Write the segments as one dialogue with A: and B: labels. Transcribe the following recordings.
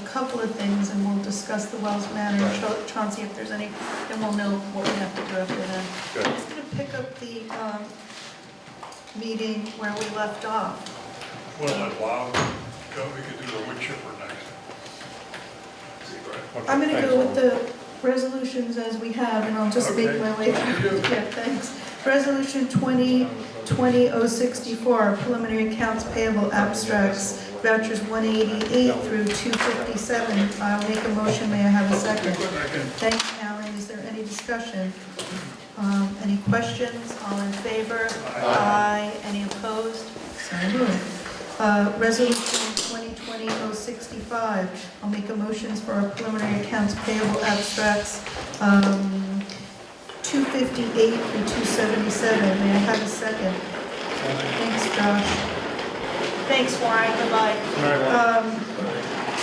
A: couple of things, and we'll discuss the Wells matter,
B: Right.
A: Cha- Chauncey, if there's any, and we'll know what we have to do after then.
B: Good.
A: I'm just gonna pick up the um, meeting where we left off.
C: Well, it wow, we could do the wood chipper next. Right.
A: I'm gonna go with the resolutions as we have, and I'll just make
C: Okay.
A: my way through. Yeah, thanks. Resolution 20, 20064, preliminary accounts payable abstracts, vouchers 188 through 257. I'll make a motion, may I have a second?
C: Second.
A: Thanks, Alan, is there any discussion? Um, Any questions, all in favor? Aye. Any opposed? So moved. Uh, Resolution 2020-065, I'll make a motion for our preliminary accounts payable abstracts, um, 258 through 277, may I have a second? Thanks, Josh. Thanks, Warren, goodbye. Um,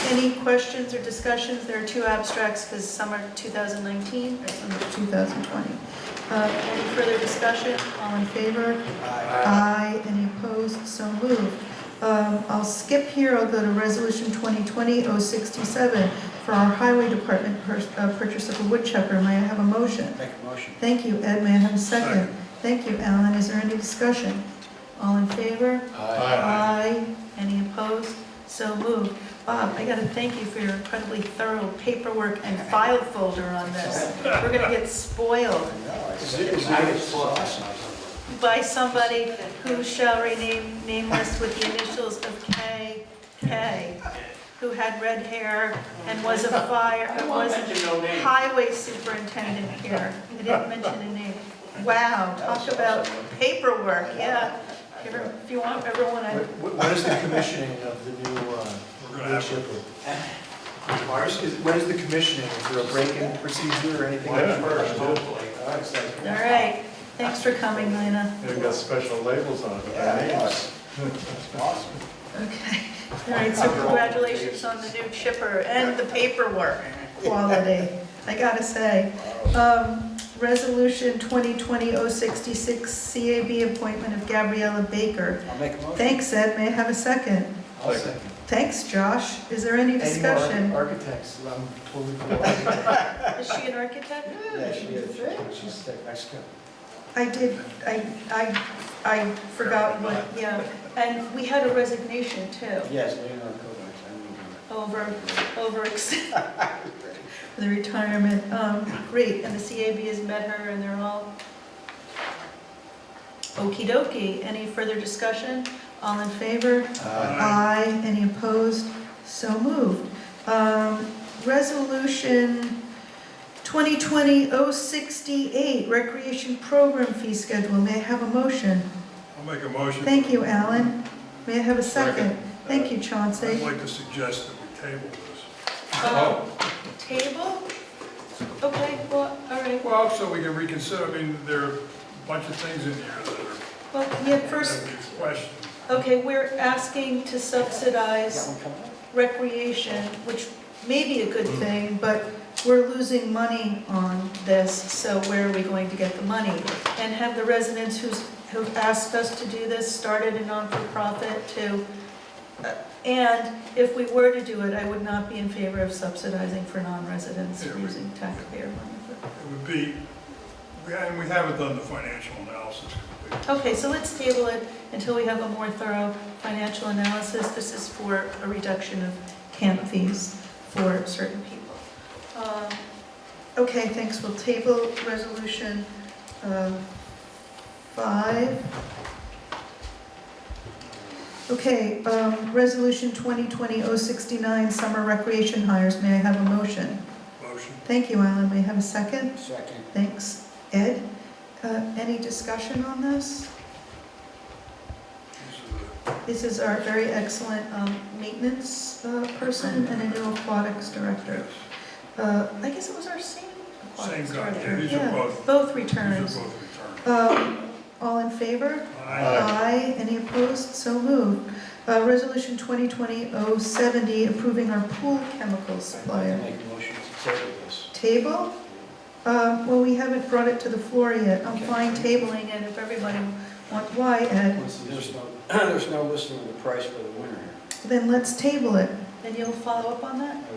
A: Any questions or discussions? There are two abstracts, because some are 2019 or some are 2020. Uh, Any further discussion? All in favor? Aye. Any opposed? So moved. Um, I'll skip here, I'll go to Resolution 2020-067 for our Highway Department pur- uh, purchase of a wood chipper. May I have a motion?
D: Make a motion.
A: Thank you, Ed, may I have a second?
C: Second.
A: Thank you, Alan, is there any discussion? All in favor? Aye. Any opposed? So moved. Bob, I gotta thank you for your incredibly thorough paperwork and file folder on this. We're gonna get spoiled
D: I was lost.
A: by somebody who shall rename nameless with the initials of K, K, who had red hair and was a fire, was highway superintendent here. I didn't mention a name. Wow, talk about paperwork, yeah. If you- If you want, everyone, I
E: What is the commissioning of the new, uh,
C: We're gonna
E: new
C: have-
E: shipper? Is, what is the commissioning? Is there a break-in procedure or anything?
B: Why not first,
A: All right, thanks for coming, Lena.
B: They've got special labels on it.
D: Yeah, yes. Awesome.
A: Okay. All right, so congratulations on the new chipper and the paperwork quality, I gotta say. Um, Resolution 2020-066, CAB appointment of Gabriella Baker.
D: I'll make a motion.
A: Thanks, Ed, may I have a second?
E: I'll second.
A: Thanks, Josh, is there any
E: Any more
A: discussion?
E: Architects, um, I'm totally for architects.
A: Is she an architect?
E: Yeah, she is, she's sick, I skipped.
A: I did, I, I, I forgot what, yeah, and we had a resignation too.
D: Yes, Leonard Kovacs,
A: over, over the retirement. Um, Great, and the CAB has met her, and they're all okey dokey. Any further discussion? All in favor?
E: Uh,
A: Aye. Any opposed? So moved. Um, Resolution 2020-068, Recreation Program Fee Schedule. May I have a motion?
C: I'll make a motion.
A: Thank you, Alan. May I have a second?
B: Second.
A: Thank you, Chauncey.
C: I'd like to suggest that we table this.
A: Um, Table? Okay, well, all right.
C: Well, so we can reconsider, I mean, there are a bunch of things in here that
A: Well, yeah,
C: are,
A: first,
C: that we question.
A: okay, we're asking to subsidize recreation, which may be a good thing, but we're losing money on this, so where are we going to get the money? And have the residents who's, who've asked us to do this started a non-for-profit to, uh, and if we were to do it, I would not be in favor of subsidizing for non-residents
C: Yeah, we-
A: using taxpayer money for
C: It would be, we- and we haven't done the financial analysis completely.
A: Okay, so let's table it until we have a more thorough financial analysis. This is for a reduction of camp fees for certain people. Um, Okay, thanks, we'll table resolution um, five. Okay, um, resolution 2020-069, summer recreation hires, may I have a motion?
C: Motion.
A: Thank you, Alan, may I have a second?
D: Second.
A: Thanks, Ed. Uh, Any discussion on this?
C: These are the-
A: This is our very excellent um, maintenance uh, person and a new aquatics director. Uh, I guess it was our same aquatics
C: Same guy,
A: director.
C: yeah, these are
A: Yeah,
C: both-
A: Both
C: These
A: returns.
C: are both returned.
A: Um, All in favor?
C: Aye.
A: Aye. Any opposed? So moved. Uh, Resolution 2020-070, approving our pool chemical supplier.
D: Make a motion to table this.
A: Table? Uh, Well, we haven't brought it to the floor yet. I'm
D: Okay.
A: fine tabling it if everybody wants, why, Ed?
D: There's no, there's no listing of the price for the winner here.
A: Then let's table it. Then you'll follow up on that?